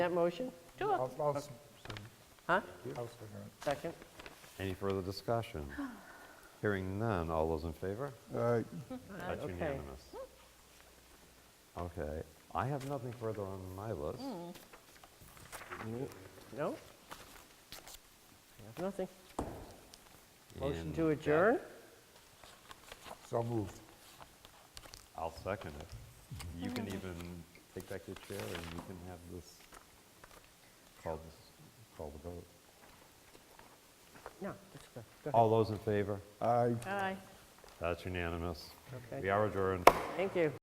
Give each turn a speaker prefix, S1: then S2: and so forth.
S1: That motion?
S2: I'll- I'll s-
S1: Huh?
S2: I'll second it.
S1: Second?
S3: Any further discussion? Hearing none, all those in favor?
S4: Aye.
S3: That's
S1: okay.
S3: unanimous. Okay, I have nothing further on my list.
S1: No? I have Nothing? Motion
S3: and
S1: to
S3: with that,
S1: adjourn?
S2: So moved.
S3: I'll second it. You can even take back your chair and you can have this, call this, call the vote.
S1: No, that's good. Go
S3: All those in favor?
S4: Aye.
S1: ahead. Aye.
S3: That's unanimous.
S1: Okay.
S3: We are adjourned.
S1: Thank you.